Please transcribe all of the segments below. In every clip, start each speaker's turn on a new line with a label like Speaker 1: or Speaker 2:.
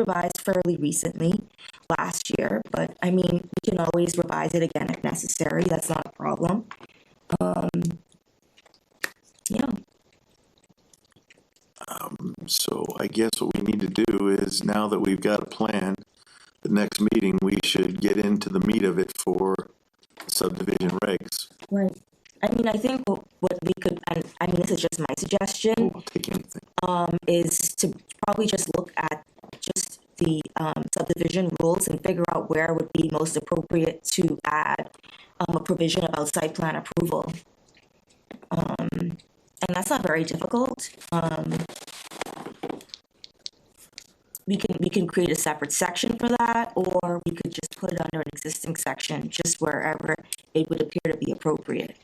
Speaker 1: revised fairly recently last year, but I mean, we can always revise it again if necessary. That's not a problem. Um, yeah.
Speaker 2: So I guess what we need to do is now that we've got a plan, the next meeting, we should get into the meat of it for subdivision regs.
Speaker 1: Right. I mean, I think what, what we could, and I mean, this is just my suggestion,
Speaker 2: We'll take anything.
Speaker 1: is to probably just look at just the um, subdivision rules and figure out where would be most appropriate to add um, a provision about site plan approval. Um, and that's not very difficult. Um, we can, we can create a separate section for that, or we could just put it under an existing section, just wherever it would appear to be appropriate.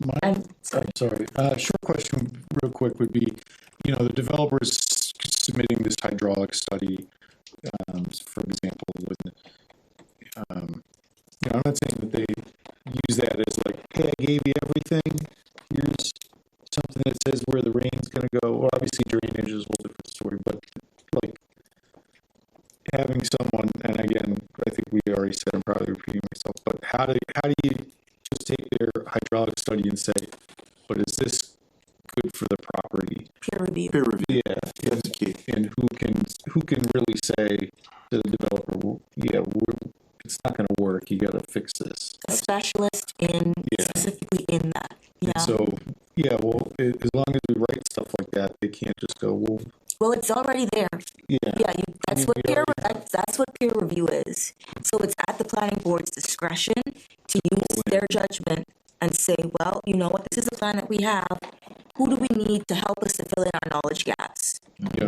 Speaker 3: My,
Speaker 1: I'm sorry.
Speaker 3: I'm sorry, uh, short question real quick would be, you know, the developer's submitting this hydraulic study, um, for example, with, um, you know, I'm not saying that they use that as like, hey, I gave you everything, here's something that says where the rain's gonna go, well, obviously drainage is a whole different story, but like, having someone, and again, I think we already said, I'm probably repeating myself, but how do, how do you just take their hydraulic study and say, but is this good for the property?
Speaker 1: peer review.
Speaker 2: Peer review,
Speaker 3: Yeah.
Speaker 2: that's the key.
Speaker 3: And who can, who can really say to the developer, "Well, yeah, we're, it's not gonna work, you gotta fix this.
Speaker 1: a specialist in
Speaker 3: Yeah.
Speaker 1: specifically in that.
Speaker 3: And
Speaker 1: Yeah.
Speaker 3: So, yeah, well, a- as long as we write stuff like that, they can't just go, well,
Speaker 1: well, it's already there.
Speaker 3: yeah,
Speaker 1: Yeah, you, that's
Speaker 3: mean,
Speaker 1: what
Speaker 3: we
Speaker 1: peer
Speaker 3: already
Speaker 1: that's, that's what peer review is. So it's at the planning board's discretion to use their judgment and say, well, you know what, this is the plan that we have. Who do we need to help us to fill in our knowledge gaps?
Speaker 3: yeah.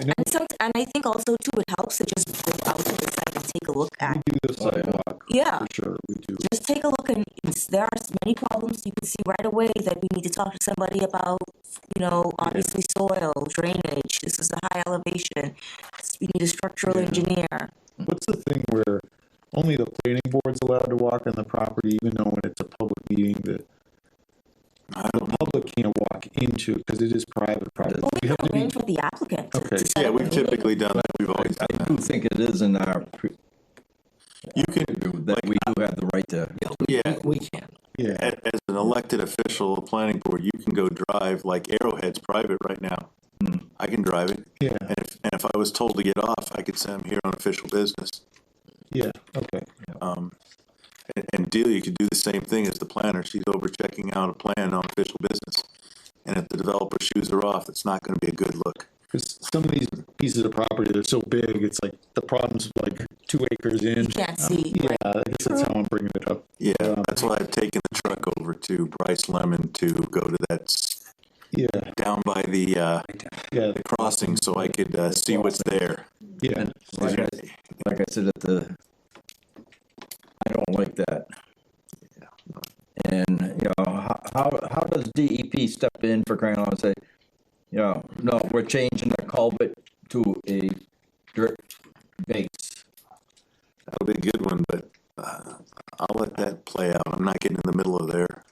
Speaker 1: And some, and I think also too, it helps to just go out to the site and take a look
Speaker 3: We
Speaker 1: at.
Speaker 3: do the sidewalk,
Speaker 1: Yeah.
Speaker 3: for sure, we do.
Speaker 1: Just take a look and it's- there are many problems you can see right away that we need to talk to somebody about, you know, obviously soil, drainage, this is a high elevation. We need a structural
Speaker 3: Yeah.
Speaker 1: engineer.
Speaker 3: What's the thing where only the planning board's allowed to walk on the property, even though when it's a public meeting, the
Speaker 2: I don't know.
Speaker 3: public can't walk into, because it is private property.
Speaker 1: Well, we
Speaker 3: We have
Speaker 1: can
Speaker 3: to be,
Speaker 1: arrange with the applicant. to-
Speaker 3: Okay.
Speaker 1: to set
Speaker 2: Yeah,
Speaker 1: up a
Speaker 2: we've
Speaker 1: meeting.
Speaker 2: typically done that, we've always done
Speaker 4: I
Speaker 2: that.
Speaker 4: do think it is in our, pre-
Speaker 2: You can,
Speaker 4: that we do have the right to,
Speaker 2: yeah,
Speaker 5: We can.
Speaker 3: yeah,
Speaker 2: a- as an elected official, a planning board, you can go drive, like Arrowhead's private right now. Hmm, I can drive it,
Speaker 3: yeah,
Speaker 2: and if, and if I was told to get off, I could say I'm here on official business.
Speaker 3: yeah, okay,
Speaker 2: And, and Delia could do the same thing as the planner, she's over checking out a plan on official business. And if the developer shoes her off, it's not gonna be a good look.
Speaker 3: because some of these pieces of property, they're so big, it's like, the problem's like two acres in. Um,
Speaker 1: You can't see.
Speaker 3: Yeah, I guess that's how I'm bringing it up.
Speaker 2: Yeah, that's why I've taken the truck over to Bryce Lemon to go to that, s-
Speaker 3: Yeah,
Speaker 2: down by the, uh,
Speaker 3: yeah,
Speaker 2: the crossing, so I could, uh, see what's there.
Speaker 3: yeah,
Speaker 4: like I, like I said at the, I don't like that. And, you know, how, how, how does DEP step in for crying out and say, you know, no, we're changing the culvert to a dirt base?
Speaker 2: That'll be a good one, but, uh, I'll let that play out, I'm not getting in the middle of there.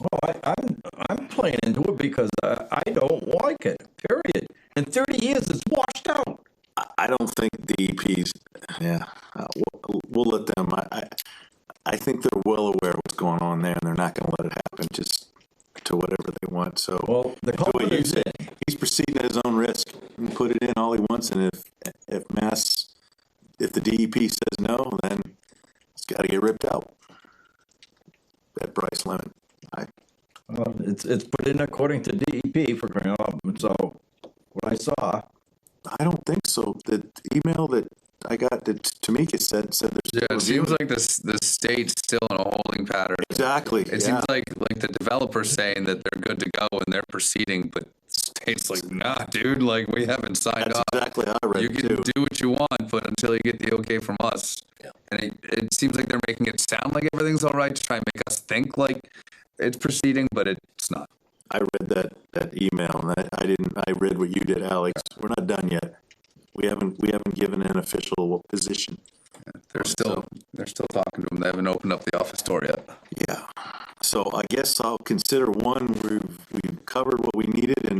Speaker 4: Well, I, I'm, I'm playing into it because I, I don't like it, period. In thirty years, it's washed out.
Speaker 2: I, I don't think DEP's, yeah, uh, we'll, we'll let them, I, I, I think they're well aware of what's going on there, and they're not gonna let it happen, just to whatever they want, so.
Speaker 4: Well, the
Speaker 2: Do what
Speaker 4: culvert
Speaker 2: you
Speaker 4: is
Speaker 2: said.
Speaker 4: in.
Speaker 2: He's proceeding at his own risk. He can put it in all he wants, and if if Mass, if the DEP says no, then it's got to get ripped out. That Bryce Lemon, I,
Speaker 4: Well, it's, it's put in according to DEP for crying out loud, so what I saw,
Speaker 2: I don't think so. The email that I got that Tamika said said there's
Speaker 5: Yeah, it seems like this the state's still in a holding pattern.
Speaker 2: exactly.
Speaker 5: It
Speaker 2: yeah.
Speaker 5: seems like like the developer's saying that they're good to go and they're proceeding, but the state's like, nah, dude, like we haven't signed
Speaker 2: that's
Speaker 5: off.
Speaker 2: exactly how I read
Speaker 5: Uh, You
Speaker 2: it
Speaker 5: can
Speaker 2: too.
Speaker 5: do what you want, but until you get the okay from us. And it, it seems like they're making it sound like everything's all right to try and make us think like it's proceeding, but it's not.
Speaker 2: I read that that email, and I, I didn't. I read what you did, Alex. We're not done yet. We haven't we haven't given an official position.
Speaker 5: They're still they're still talking to them. They haven't opened up the office door yet.
Speaker 2: Yeah, so I guess I'll consider one, we've, we've covered what we needed and